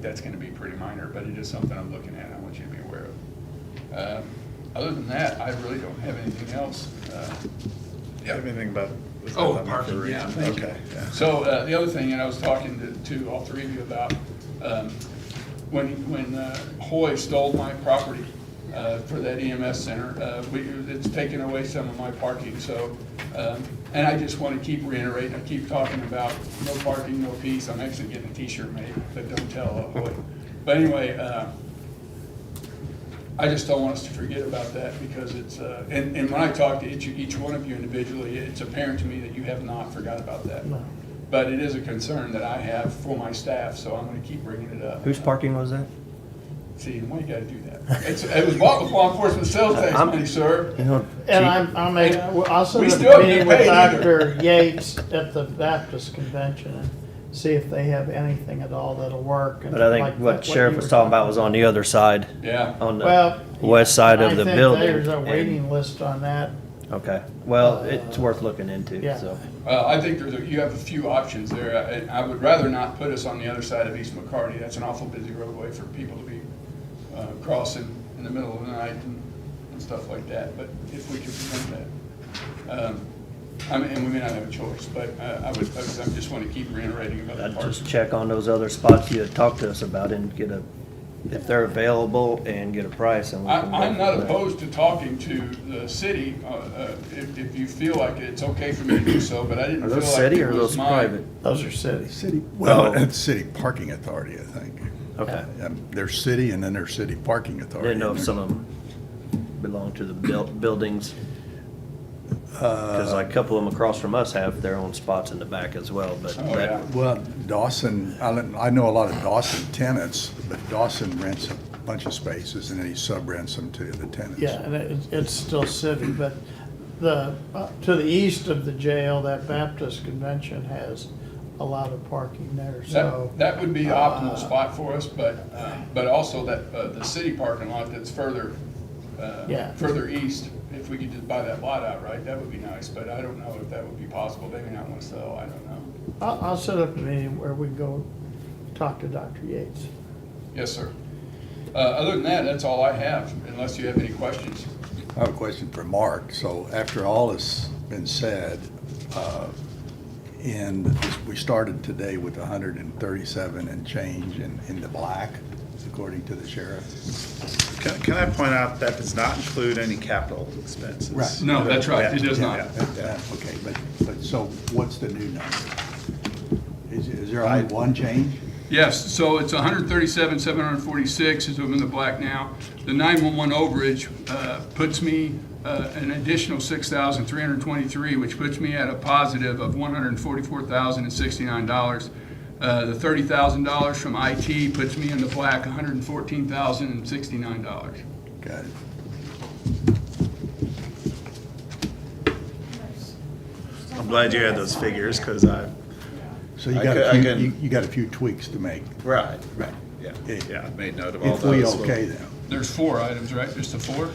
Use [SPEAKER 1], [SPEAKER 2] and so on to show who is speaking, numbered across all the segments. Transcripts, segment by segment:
[SPEAKER 1] that's gonna be pretty minor, but it is something I'm looking at, I want you to be aware of. Um, Other than that, I really don't have anything else. Uh,
[SPEAKER 2] Do you have
[SPEAKER 1] yeah.
[SPEAKER 2] anything about? was that
[SPEAKER 1] Oh,
[SPEAKER 2] about
[SPEAKER 1] parking,
[SPEAKER 2] Maplewood?
[SPEAKER 1] yeah, thank you.
[SPEAKER 2] Okay, yeah.
[SPEAKER 1] So uh, the other thing, and I was talking to, to all three of you about, um, when, when uh, Hoy stole my property uh, for that EMS center, uh, we, it's taken away some of my parking, so, um, and I just want to keep reiterating, I keep talking about no parking, no peace, I'm actually getting a T-shirt made, but don't tell uh, Hoy. But anyway, uh, I just don't want us to forget about that because it's, uh, and, and when I talk to each, each one of you individually, it's apparent to me that you have not forgot about that. But it is a concern that I have for my staff, so I'm gonna keep bringing it up.
[SPEAKER 3] Whose parking was that?
[SPEAKER 1] See, and why you gotta do that? It's, it was bought with law enforcement sales tax
[SPEAKER 3] I'm-
[SPEAKER 1] money, sir.
[SPEAKER 3] You know,
[SPEAKER 4] And
[SPEAKER 3] gee,
[SPEAKER 4] I'm, I'm a, I'll
[SPEAKER 1] We
[SPEAKER 4] set
[SPEAKER 1] still
[SPEAKER 4] up a
[SPEAKER 1] haven't
[SPEAKER 4] meeting
[SPEAKER 1] paid
[SPEAKER 4] with
[SPEAKER 1] either.
[SPEAKER 4] Dr. Yates at the Baptist convention and see if they have anything at all that'll work. and
[SPEAKER 3] But I
[SPEAKER 4] like
[SPEAKER 3] think what
[SPEAKER 4] you
[SPEAKER 3] sheriff
[SPEAKER 4] were
[SPEAKER 3] was talking about was on the other side,
[SPEAKER 1] Yeah,
[SPEAKER 3] on
[SPEAKER 4] Well.
[SPEAKER 3] the west side
[SPEAKER 4] I
[SPEAKER 3] of the
[SPEAKER 4] think
[SPEAKER 3] building.
[SPEAKER 4] There's a
[SPEAKER 3] and-
[SPEAKER 4] waiting list on that.
[SPEAKER 3] Okay, well, it's worth looking into,
[SPEAKER 4] Yeah.
[SPEAKER 3] so.
[SPEAKER 1] uh, I think there's, a- you have a few options there. I, I would rather not put us on the other side of East McCarty. That's an awful busy roadway for people to be, uh, crossing in the middle of the night and, and stuff like that, but if we can prevent that. um, I mean, and we may not have a choice, but, uh, I would, I would- I just wanna keep reiterating about the
[SPEAKER 3] I'd
[SPEAKER 1] parks.
[SPEAKER 3] just check on those other spots you had talked to us about and get a, if they're available and get a price and. we
[SPEAKER 1] I,
[SPEAKER 3] can go
[SPEAKER 1] I'm not
[SPEAKER 3] from there.
[SPEAKER 1] opposed to talking to the city, uh, uh, if, if you feel like it's okay for me to do so, but I didn't
[SPEAKER 3] Are
[SPEAKER 1] feel like it
[SPEAKER 3] those city or are
[SPEAKER 1] was
[SPEAKER 3] those
[SPEAKER 1] my-
[SPEAKER 3] private?
[SPEAKER 4] Those are cities.
[SPEAKER 2] City, well,
[SPEAKER 3] Oh.
[SPEAKER 2] it's City Parking Authority, I think.
[SPEAKER 3] Okay,
[SPEAKER 2] Um, There's city and then there's City Parking
[SPEAKER 3] I
[SPEAKER 2] Authority.
[SPEAKER 3] didn't know if some of them belong to the buil- buildings, cause like a couple of them across from us have their own spots in the back as well, but.
[SPEAKER 1] Oh,
[SPEAKER 3] that-
[SPEAKER 1] yeah.
[SPEAKER 2] Well, Dawson, I don't- I know a lot of Dawson tenants, but Dawson rents a bunch of spaces and then he sub-rents them to the tenants.
[SPEAKER 4] Yeah, and it, it's still city, but the, uh, to the east of the jail, that Baptist convention has a lot of parking there, so.
[SPEAKER 1] That, that would be the
[SPEAKER 4] uh,
[SPEAKER 1] optimal spot for us, but, uh, but also that, uh, the city parking lot that's further, uh,
[SPEAKER 4] Yeah.
[SPEAKER 1] further east, if we could just buy that lot outright, that would be nice, but I don't know if that would be possible, they may not want to sell, I don't know.
[SPEAKER 4] I'll, I'll set up a meeting where we can go talk to Dr. Yates.
[SPEAKER 1] Yes, sir. Uh, Other than that, that's all I have, unless you have any questions.
[SPEAKER 2] I have a question for Mark. So after all has been said, uh, and this- we started today with 137 and change in, in the black, according to the sheriff.
[SPEAKER 5] Can, can I point out that does not include any capital expenses?
[SPEAKER 2] Right.
[SPEAKER 1] No, that's right, it does not.
[SPEAKER 2] Yeah, yeah, Okay, but, but so what's the new number? Is, is there only one change?
[SPEAKER 1] Yes, so it's 137, 746 is I'm in the black now. The 911 overage uh, puts me uh, an additional 6,323, which puts me at a positive of $144,069. Uh, The $30,000 from IT puts me in the black, $114,069.
[SPEAKER 2] Got it.
[SPEAKER 5] I'm glad you had those figures, because I,
[SPEAKER 2] So you
[SPEAKER 5] I
[SPEAKER 2] got,
[SPEAKER 5] ca- I
[SPEAKER 2] a few-
[SPEAKER 5] can-
[SPEAKER 2] you you got a few tweaks to make.
[SPEAKER 5] right,
[SPEAKER 2] Right.
[SPEAKER 5] yeah,
[SPEAKER 2] Yeah.
[SPEAKER 5] yeah, I made note of all
[SPEAKER 2] If we
[SPEAKER 5] those.
[SPEAKER 2] okay them.
[SPEAKER 1] There's four items, right? Just the four?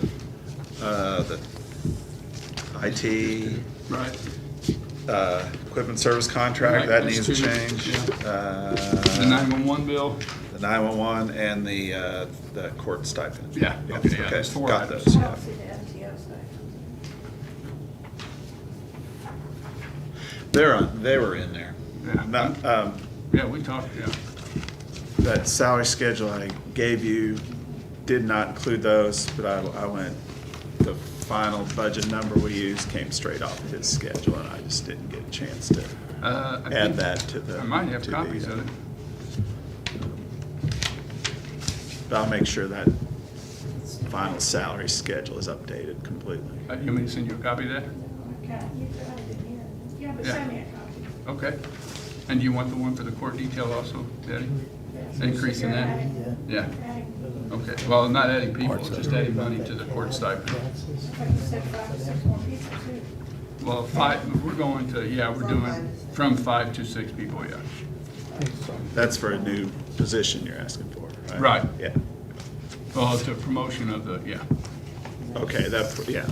[SPEAKER 5] Uh, the IT,
[SPEAKER 1] Right.
[SPEAKER 5] uh, equipment service
[SPEAKER 1] Right,
[SPEAKER 5] contract, that
[SPEAKER 1] that's
[SPEAKER 5] needs a
[SPEAKER 1] two,
[SPEAKER 5] change.
[SPEAKER 1] yeah.
[SPEAKER 5] Uh,
[SPEAKER 1] The 911 bill?
[SPEAKER 5] The nine-one-one and the, uh, the court stipend.
[SPEAKER 1] Yeah, okay, yeah, there's four
[SPEAKER 5] Got
[SPEAKER 1] items.
[SPEAKER 5] those,
[SPEAKER 6] I
[SPEAKER 5] yeah.
[SPEAKER 6] don't see the MTO stipend.
[SPEAKER 5] They're on, they were in there.
[SPEAKER 1] Yeah.
[SPEAKER 5] Not, um,
[SPEAKER 1] Yeah, we talked, yeah.
[SPEAKER 5] that salary schedule I gave you did not include those, but I, I went, the final budget number we used came straight off his schedule, and I just didn't get a chance to
[SPEAKER 1] Uh, I
[SPEAKER 5] add
[SPEAKER 1] think-
[SPEAKER 5] that to the.
[SPEAKER 1] I might have
[SPEAKER 5] to the, uh,
[SPEAKER 1] copies of it.
[SPEAKER 5] But I'll make sure that final salary schedule is updated completely.
[SPEAKER 1] Uh, You want me to send you a copy of that?
[SPEAKER 6] Okay, you got it in here. Yeah, but
[SPEAKER 1] Yeah.
[SPEAKER 6] send me a copy.
[SPEAKER 1] Okay. And do you want the one for the court detail also, Daddy?
[SPEAKER 6] Yes.
[SPEAKER 1] Increasing
[SPEAKER 6] You're
[SPEAKER 1] that?
[SPEAKER 6] adding-
[SPEAKER 1] Yeah,
[SPEAKER 6] adding-
[SPEAKER 1] okay. Well, not adding people, just adding money to the court stipend.
[SPEAKER 6] But you said five or six more people too.
[SPEAKER 1] Well, five, we're going to, yeah, we're doing from five to six people, yeah.
[SPEAKER 5] That's for a new position you're asking for, right?
[SPEAKER 1] Right.
[SPEAKER 5] Yeah,
[SPEAKER 1] Well, it's a promotion of the, yeah.
[SPEAKER 5] okay, that, yeah,